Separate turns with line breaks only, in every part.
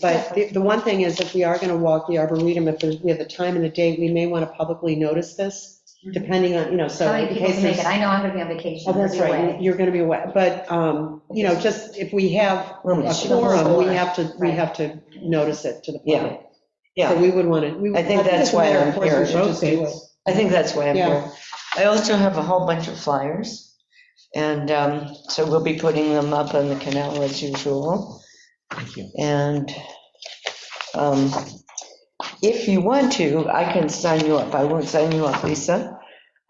But the, the one thing is, if we are going to walk the Arboretum, if there's, we have the time and the date, we may want to publicly notice this, depending on, you know, so in
Mm-hmm. How many people
case
can make
there's.
it? I know I'm gonna be on vacation.
Oh, that's
I'll be
right,
away.
you're going to be away, but, um, you know, just if we have a
Rooms.
quorum, we have to, we
Right.
have to notice it to the
Yeah,
public. So
yeah.
we would want to, we.
I think that's why I'm here.
We should just do it.
I think that's why I'm
Yeah.
here. I also have a whole bunch of flyers. And um, so we'll be putting them up on the canal as usual. And um, if you want to, I can sign you up. I won't sign you up, Lisa.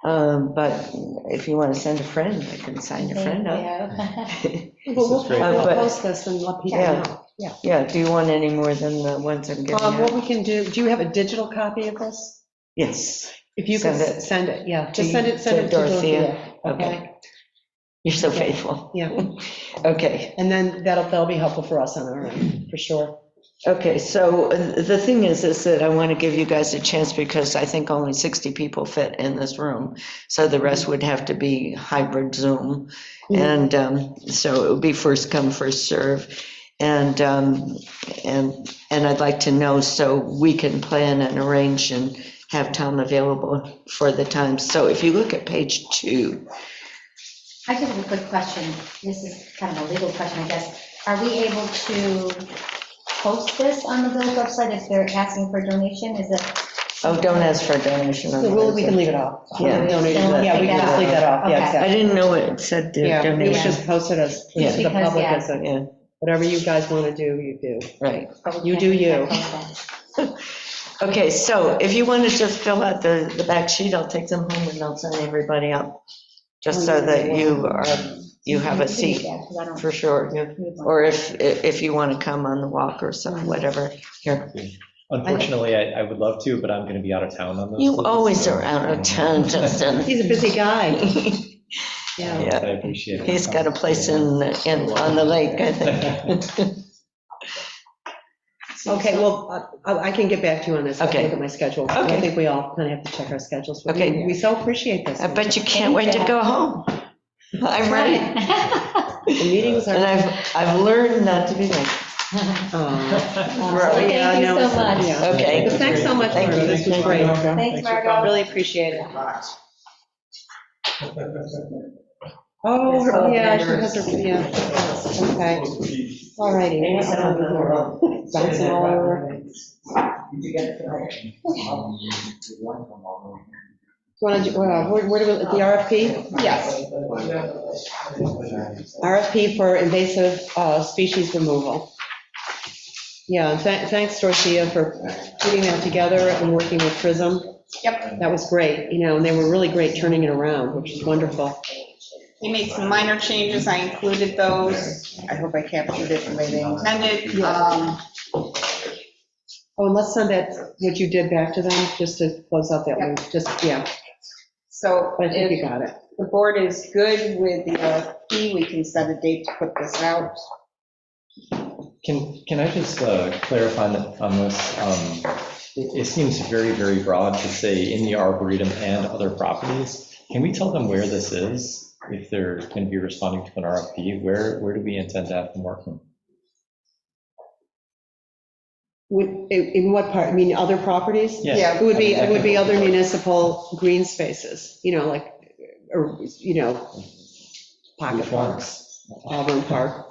Um, But if you want to send a friend, I can sign your friend up.
Thank
But we'll,
great.
we'll
Uh, but-
post this and let people
Yeah.
know.
Yeah, do you want any more than the ones I'm giving
Um, what
out?
we can do, do you have a digital copy of this?
Yes,
If you can
Send it.
send it, yeah,
To-
just send it, send
to
it to
Dorothea.
Dorothea.
okay. You're so faithful.
Yeah.
Okay.
And then that'll, that'll be helpful for us on our end, for sure.
Okay, so uh, the thing is, is that I want to give you guys a chance because I think only 60 people fit in this room. So the rest would have to be hybrid Zoom.
Mhm.
And um, so it would be first come, first serve. And, um, and, and I'd like to know so we can plan and arrange and have time available for the time. So if you look at page two,
I just have a quick question. This is kind of a legal question, I guess. Are we able to post this on the village website if they're asking for a donation? Is it?
oh, don't ask for a donation. on
So
the
we'll- we
website.
can leave it off.
Yeah.
Donation, Yeah, we can just leave that off, yeah,
Okay.
I
exactly.
didn't know it said the
Yeah, we would
donation.
just post it as,
Yeah.
to the
Because,
public
yeah.
as a,
Yeah,
whatever you guys want to do, you do.
right.
You do you.
Okay, so if you want to just fill out the, the back sheet, I'll take them home and I'll send everybody up, just so that you are, you have a seat, for sure. yeah. Or if, if you want to come on the walk or some, whatever. Here,
Unfortunately, I, I would love to, but I'm going to be out of town on those.
you
days,
always
so-
are out of town, Justin.
He's a busy guy, yeah.
Yeah.
I appreciate it.
He's got a place in, in, on the lake, I think.
Okay, well, I I can get back to you on this. I'll
Okay.
Look at my schedule. I
Okay.
think we all kind of have to check our schedules. We-
Okay.
We so appreciate this.
I bet you can't wait to go home. I'm ready,
The meetings
and
are.
I've, I've learned not to be late.
Aw.
Right.
Thank
Yeah,
you
no,
so
it's-
much.
yeah.
Okay.
But thanks so much,
Thank
Margo.
you.
This was great.
Thanks, Margo.
Really appreciate it. Oh, her- yeah, she has her, yeah, okay. All righty. Bouncing all over. Do you want to, where, where do we, the RFP? Yes. RFP for invasive uh, species removal. Yeah, and tha- thanks, Dorothea, for putting that together and working with Prism. Yep. That was great, you know, and they were really great turning it around, which is wonderful.
We made some minor changes, I included those, I hope I captured it the way they intended. Um,
Oh, and let's send that, what you did back to them, just to close out that one, just, yeah,
So
but I think you
if
got it.
the board is good with the RFP, we can set a date to put this out.
Can, can I just uh, clarify on the- on this? Um, It it seems very, very broad to say in the arboretum and other properties. Can we tell them where this is? If they're going to be responding to an RFP, where, where do we intend to have them working?
Would- In in what part, I mean, other properties? It would be, it would be other municipal green spaces, you know, like, or, you know, pocket
Which
park,
ones?
Auburn Park.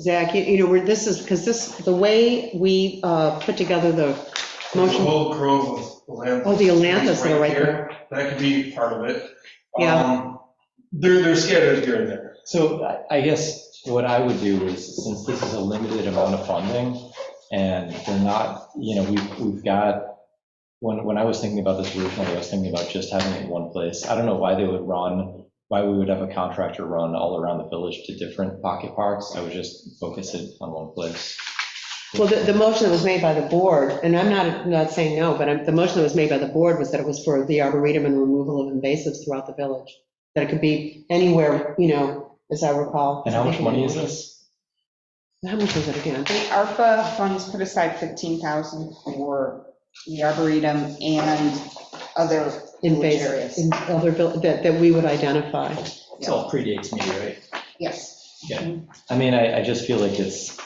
Zach, you- you know, where this is, because this, the way we uh, put together the
There's a
motion,
whole grove of Atlanthus.
Oh, the Atlanthus that are right
That could be part of it.
Yeah.
Um, They're, they're scattered here and there.
So I- I guess what I would do is, since this is a limited amount of funding, and they're not, you know, we've, we've got, when, when I was thinking about this originally, I was thinking about just having it in one place. I don't know why they would run, why we would have a contractor run all around the village to different pocket parks. I would just focus it on one place.
well, the, the motion that was made by the board, and I'm not, not saying no, but I'm- the motion that was made by the board was that it was for the arboretum and removal of invasives throughout the village, that it could be anywhere, you know, as I recall.
And how much money is this?
How much was it again?
The ARPA funds put aside 15,000 for the Arboretum and other village
invasive,
areas.
in other, vil- that, that we would identify.
It's all predates me, right?
Yes.
I mean, I, I just feel like it's,